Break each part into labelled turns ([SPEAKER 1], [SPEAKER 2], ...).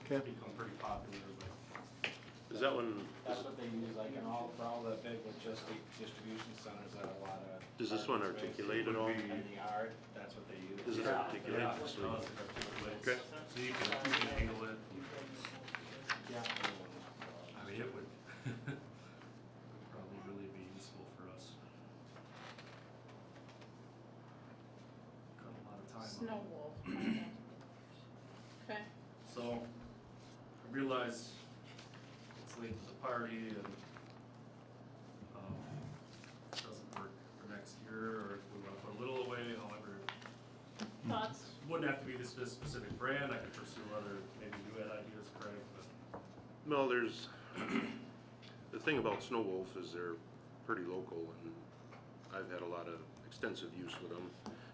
[SPEAKER 1] Okay.
[SPEAKER 2] become pretty popular, but
[SPEAKER 3] Is that one,
[SPEAKER 4] That's what they use, like in all, for all the big logistic distribution centers that a lot of.
[SPEAKER 3] does this one
[SPEAKER 4] apartment space
[SPEAKER 3] articulate at all?
[SPEAKER 4] In the yard, that's what they use.
[SPEAKER 3] Is it
[SPEAKER 4] Yeah.
[SPEAKER 3] articulate?
[SPEAKER 2] yeah, it's not as effective, but it's- so you can, you can handle it.
[SPEAKER 4] Yeah.
[SPEAKER 2] I mean, it would would probably really be useful for us. Cut a lot of time. off.
[SPEAKER 5] Snow wolf. Okay. Okay.
[SPEAKER 2] So, I realize it's late to the party and, um, it doesn't work for next year, or if we wanna put a little away, however,
[SPEAKER 5] Thoughts?
[SPEAKER 2] wouldn't have to be this, this specific brand, I could pursue other, maybe you had ideas, Craig, but.
[SPEAKER 3] well, there's, the thing about Snow Wolf is they're pretty local and I've had a lot of extensive use with them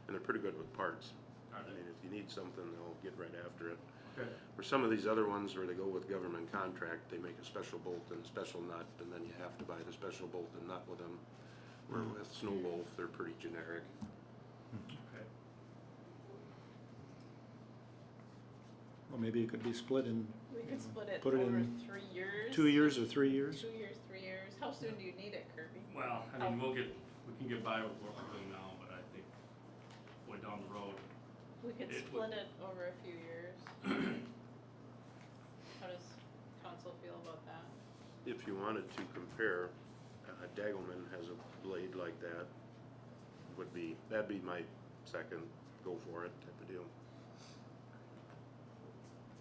[SPEAKER 3] and they're pretty good with parts. I
[SPEAKER 2] Are
[SPEAKER 3] mean, if you need something, they'll get right after it.
[SPEAKER 2] Okay.
[SPEAKER 3] Or some of these other ones where they go with government contract, they make a special bolt and a special nut, and then you have to buy the special bolt and nut with them. Where with Snow Wolf, they're pretty generic.
[SPEAKER 2] Okay.
[SPEAKER 1] Well, maybe it could be split in
[SPEAKER 5] We could split it
[SPEAKER 1] Put it
[SPEAKER 5] over
[SPEAKER 1] in
[SPEAKER 5] three years.
[SPEAKER 1] two years or three years.
[SPEAKER 5] Two years, three years. How soon do you need it, Kirby?
[SPEAKER 2] Well, I mean, we'll get, we can get by with what we're doing now, but I think way down the road,
[SPEAKER 5] We could
[SPEAKER 2] It
[SPEAKER 5] split
[SPEAKER 2] would-
[SPEAKER 5] it over a few years. How does council feel about that?
[SPEAKER 3] If you wanted to compare, uh, Dagelman has a blade like that, would be, that'd be my second go for it type of deal.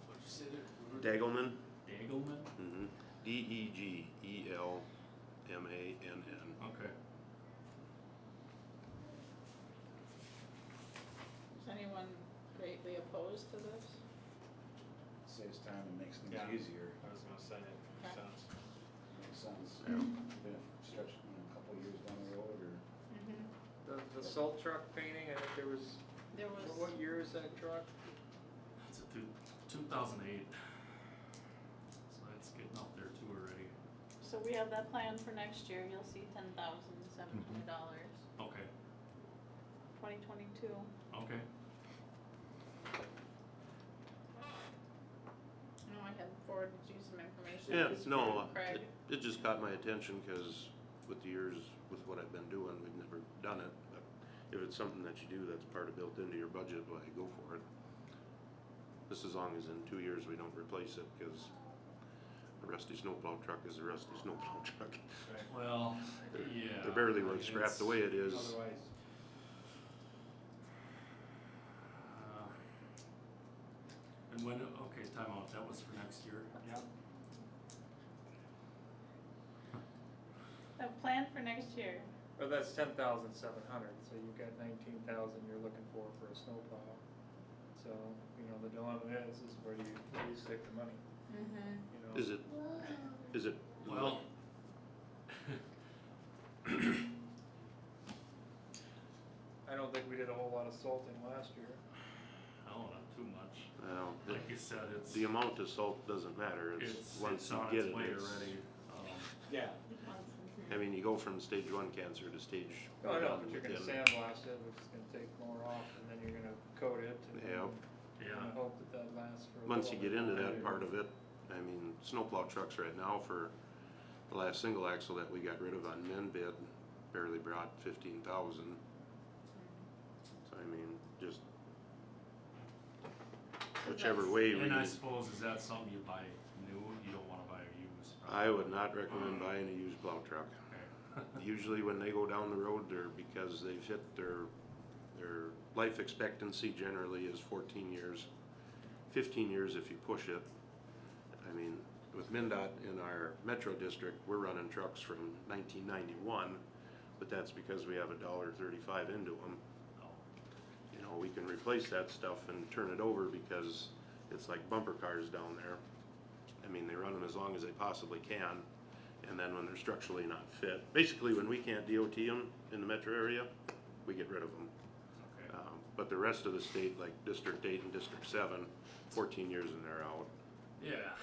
[SPEAKER 4] What'd you say there?
[SPEAKER 3] Dagelman,
[SPEAKER 2] Dagelman?
[SPEAKER 3] mhm, D E G E L M A N N.
[SPEAKER 2] Okay.
[SPEAKER 5] Is anyone greatly opposed to this?
[SPEAKER 4] Saves time and makes things
[SPEAKER 2] Yeah.
[SPEAKER 4] easier,
[SPEAKER 2] I was gonna say, it
[SPEAKER 5] Okay.
[SPEAKER 2] sounds.
[SPEAKER 4] makes sense. Even if stretch, you know, a couple of years down the road or.
[SPEAKER 5] Mm-hmm.
[SPEAKER 6] The, the salt truck painting, I think there was,
[SPEAKER 5] There was,
[SPEAKER 6] what year is that truck?
[SPEAKER 2] It's a two, two thousand eight. So it's getting up there too already.
[SPEAKER 5] so we have that plan for next year. You'll see ten thousand seven hundred dollars,
[SPEAKER 2] Okay,
[SPEAKER 5] twenty twenty-two.
[SPEAKER 2] okay.
[SPEAKER 5] No, I had forwarded you some information.
[SPEAKER 3] Yeah,
[SPEAKER 5] It's
[SPEAKER 3] no,
[SPEAKER 5] from
[SPEAKER 3] uh,
[SPEAKER 5] Craig.
[SPEAKER 3] it, it just caught my attention, cause with the years, with what I've been doing, we've never done it, but if it's something that you do that's part of built into your budget, why go for it. Just as long as in two years we don't replace it, cause a rusty snowplow truck is a rusty snowplow truck.
[SPEAKER 2] Well, yeah.
[SPEAKER 3] They're barely
[SPEAKER 2] I mean,
[SPEAKER 3] worth scrap the
[SPEAKER 2] it's-
[SPEAKER 3] way it is.
[SPEAKER 4] Otherwise,
[SPEAKER 2] Uh, And when, okay, timeout, that was for next year? Yeah.
[SPEAKER 5] A plan for next year.
[SPEAKER 6] Well, that's ten thousand seven hundred, so you've got nineteen thousand you're looking for for a snowplow. So, you know, the dilemma is, is where do you, where do you stick the money,
[SPEAKER 5] Mm-hmm.
[SPEAKER 6] you know?
[SPEAKER 3] Is it, is it?
[SPEAKER 2] Well.
[SPEAKER 6] I don't think we did a whole lot of salting last year.
[SPEAKER 2] I don't know, too much.
[SPEAKER 3] Well, the,
[SPEAKER 2] Like you said, it's.
[SPEAKER 3] the amount of salt doesn't matter, it's,
[SPEAKER 2] It's,
[SPEAKER 3] once
[SPEAKER 2] it's
[SPEAKER 3] you
[SPEAKER 2] on
[SPEAKER 3] get
[SPEAKER 2] its
[SPEAKER 3] it,
[SPEAKER 2] way
[SPEAKER 3] it's-
[SPEAKER 2] already. Um,
[SPEAKER 4] yeah,
[SPEAKER 3] I mean, you go from stage one cancer to stage.
[SPEAKER 6] Oh, no,
[SPEAKER 3] one
[SPEAKER 6] but you're gonna
[SPEAKER 3] within-
[SPEAKER 6] sandblast it, which is gonna take more off, and then you're gonna coat it, and then
[SPEAKER 3] Yep.
[SPEAKER 6] you're
[SPEAKER 2] Yeah,
[SPEAKER 6] gonna hope that that lasts for a
[SPEAKER 3] Once you
[SPEAKER 6] little
[SPEAKER 3] get
[SPEAKER 6] bit
[SPEAKER 3] into
[SPEAKER 6] longer.
[SPEAKER 3] that part of it, I mean, snowplow trucks right now for the last single axle that we got rid of on men bid barely brought fifteen thousand. So I mean, just whichever way we,
[SPEAKER 2] and I suppose is that something you buy new, you don't wanna buy a used?
[SPEAKER 3] I would not recommend buying a used plow truck.
[SPEAKER 2] Okay.
[SPEAKER 3] Usually when they go down the road, they're because they've hit their, their life expectancy generally is fourteen years, fifteen years if you push it. I mean, with MinDOT in our metro district, we're running trucks from nineteen ninety-one, but that's because we have a dollar thirty-five into them.
[SPEAKER 2] Oh,
[SPEAKER 3] You know, we can replace that stuff and turn it over because it's like bumper cars down there. I mean, they run them as long as they possibly can, and then when they're structurally not fit, basically when we can't DOT them in the metro area, we get rid of them.
[SPEAKER 2] Okay.
[SPEAKER 3] Um, but the rest of the state, like District Eight and District Seven, fourteen years and they're out.
[SPEAKER 2] Yeah,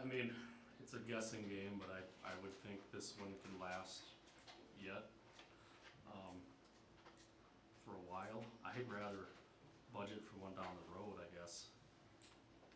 [SPEAKER 2] I mean, it's a guessing game, but I, I would think this one can last yet, um, for a while. I'd rather budget for one down the road, I guess.